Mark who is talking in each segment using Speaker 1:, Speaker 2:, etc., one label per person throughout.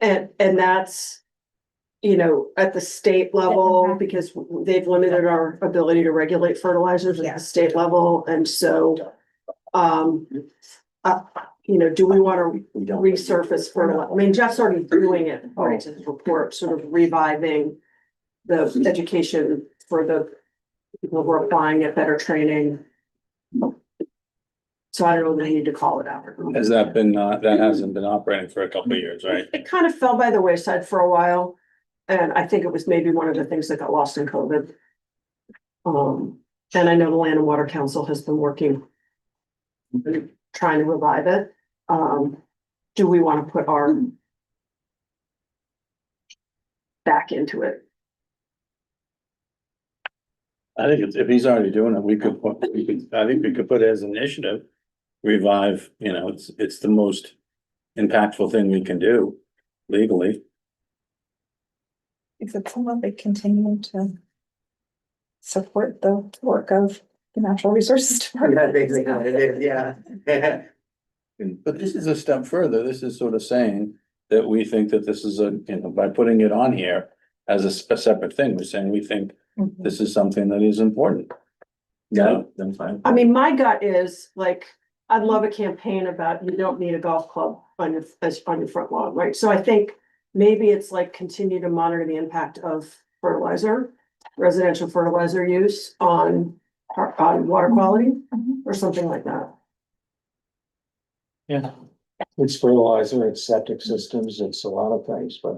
Speaker 1: And, and that's, you know, at the state level,
Speaker 2: Mhm.
Speaker 1: because they've limited our ability to regulate fertilizers at
Speaker 2: Yeah.
Speaker 1: the state level, and so. Um, uh, you know, do we wanna
Speaker 3: We don't.
Speaker 1: resurface fertilizer? I mean, Jeff's already doing it, according to his report, sort of reviving. The education for the people who are applying it, better training. So I don't know that I need to call it out.
Speaker 4: Has that been, uh, that hasn't been operating for a couple of years, right?
Speaker 1: It kind of fell by the wayside for a while, and I think it was maybe one of the things that got lost in COVID. Um, and I know the Land and Water Council has been working. Trying to revive it, um, do we want to put our. Back into it?
Speaker 4: I think it's- if he's already doing it, we could, put- we could, I think we could put it as an initiative. Revive, you know, it's, it's the most impactful thing we can do legally.
Speaker 2: Is it someone they continue to support the work of the Natural Resources
Speaker 3: Yeah,
Speaker 2: Department?
Speaker 3: basically, it is, yeah.
Speaker 4: But this is a step further. This is sort of saying that we think that this is a, you know, by putting it on here as a, s- a separate thing, we're saying we think
Speaker 2: Mhm.
Speaker 4: this is something that is important.
Speaker 3: Yeah, I'm fine.
Speaker 1: I mean, my gut is like, I'd love a campaign about you don't need a golf club on your, as, on your front lawn, right? So I think maybe it's like continue to monitor the impact of fertilizer, residential fertilizer use on, on water quality
Speaker 2: Mhm.
Speaker 1: or something like that.
Speaker 5: Yeah. It's fertilizer, it's septic systems, it's a lot of things, but.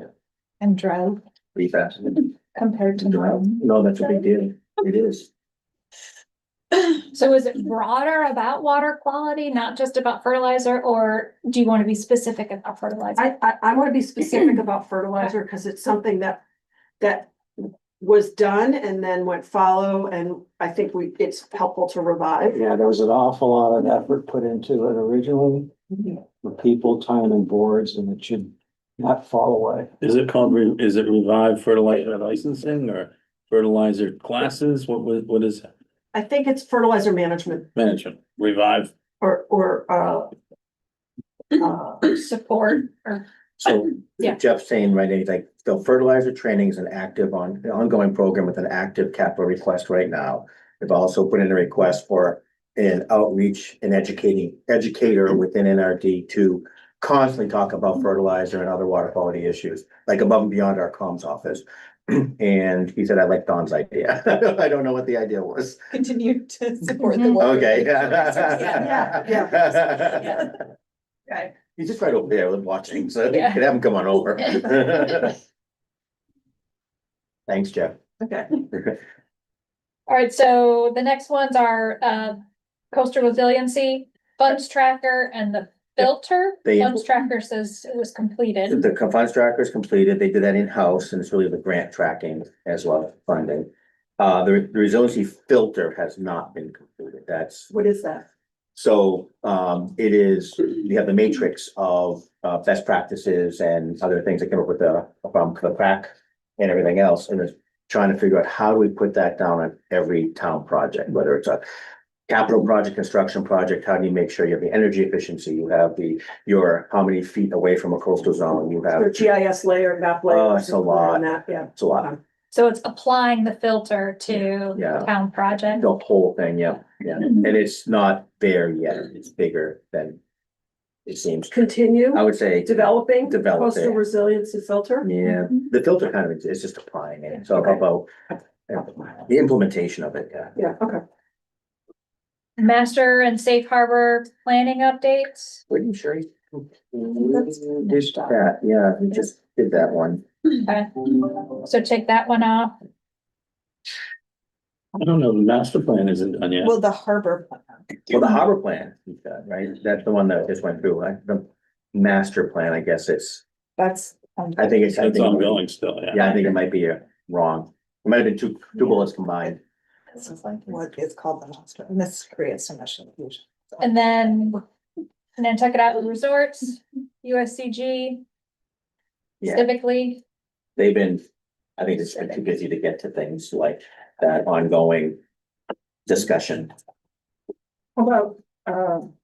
Speaker 2: And drought
Speaker 3: Pretty fast.
Speaker 2: compared to.
Speaker 3: Drought.
Speaker 2: mountain.
Speaker 3: No, that's a big deal. It is.
Speaker 6: So is it broader about water quality, not just about fertilizer, or do you want to be specific about fertilizer?
Speaker 1: I, I, I wanna be specific about fertilizer, cause it's something that, that was done and then went follow, and I think we, it's helpful to revive.
Speaker 5: Yeah, there was an awful lot of effort put into it originally. The people, time and boards, and it should not fall away.
Speaker 4: Is it called, re- is it revive fertilizer licensing or fertilizer classes? What, was- what is that?
Speaker 1: I think it's fertilizer management
Speaker 4: management? Revive.
Speaker 1: or, or, uh. uh,
Speaker 6: Support or?
Speaker 3: So
Speaker 6: Yeah.
Speaker 3: Jeff's saying, right, he's like, the fertilizer training is an active on, an ongoing program with an active capital request right now. We've also put in a request for an outreach and educating educator within NRD to constantly talk about fertilizer and other water quality issues, like above and beyond our comms office. And he said, I like Don's idea. I don't know what the idea was.
Speaker 2: Continue to support the.
Speaker 6: Mhm.
Speaker 2: work of
Speaker 3: Mm-hmm. Okay.
Speaker 2: the Natural Resources. Yeah, yeah, yeah. Right.
Speaker 3: He's just right over there watching, so you
Speaker 6: Yeah.
Speaker 3: could have him come on over. Thanks, Jeff.
Speaker 2: Okay.
Speaker 6: All right, so the next ones are uh coastal resiliency, funds tracker and the filter.
Speaker 3: They-
Speaker 6: Funds tracker says it was completed.
Speaker 3: The co- funds tracker is completed. They did that in-house and it's really the grant tracking as well, as funding. Uh, the the resiliency filter has not been completed. That's
Speaker 1: What is that?
Speaker 3: So um it is, you have the matrix of uh best practices and other things that came up with the from the crack. And everything else, and it's trying to figure out how do we put that down on every town project, whether it's a. Capital project, construction project, how do you make sure you have the energy efficiency, you have the, your, how many feet away from a coastal zone, you have.
Speaker 1: Or GIS layer, map layer.
Speaker 3: Oh, it's a
Speaker 1: something around
Speaker 3: lot.
Speaker 1: that, Yeah,
Speaker 3: It's a lot,
Speaker 6: So it's applying the filter to
Speaker 3: Yeah.
Speaker 6: town project.
Speaker 3: the whole thing, yeah, yeah, and it's not there yet, it's bigger than. It seems,
Speaker 1: continue
Speaker 3: I would say.
Speaker 1: developing.
Speaker 3: Develop it.
Speaker 1: Coastal resiliency filter.
Speaker 3: Yeah,
Speaker 2: Mm-hmm.
Speaker 3: the filter kind of is- is just applying it, so
Speaker 1: Okay.
Speaker 3: about the implementation of it, yeah.
Speaker 1: Yeah, okay.
Speaker 6: Master and safe harbor planning updates.
Speaker 3: Pretty sure he
Speaker 2: That's
Speaker 3: did that, yeah, we just did that one.
Speaker 6: So check that one off.
Speaker 4: I don't know, the master plan isn't done yet.
Speaker 2: Well, the harbor. plan.
Speaker 3: Well, the harbor plan, we've got, right, that's the one that just went through, right? The master plan, I guess it's,
Speaker 2: That's. um,
Speaker 3: I think it's. I
Speaker 4: It's
Speaker 3: think-
Speaker 4: ongoing still, yeah.
Speaker 3: Yeah, I think it might be uh, wrong, it might have been two, two bullets combined,
Speaker 2: This is like what is called the monster, and this creates so much confusion.
Speaker 6: And then, and then check it out with resorts, USCG.
Speaker 3: Yeah.
Speaker 6: Civically,
Speaker 3: they've been, I think it's been too busy to get to things like that ongoing discussion.
Speaker 1: uh,
Speaker 2: How About, um,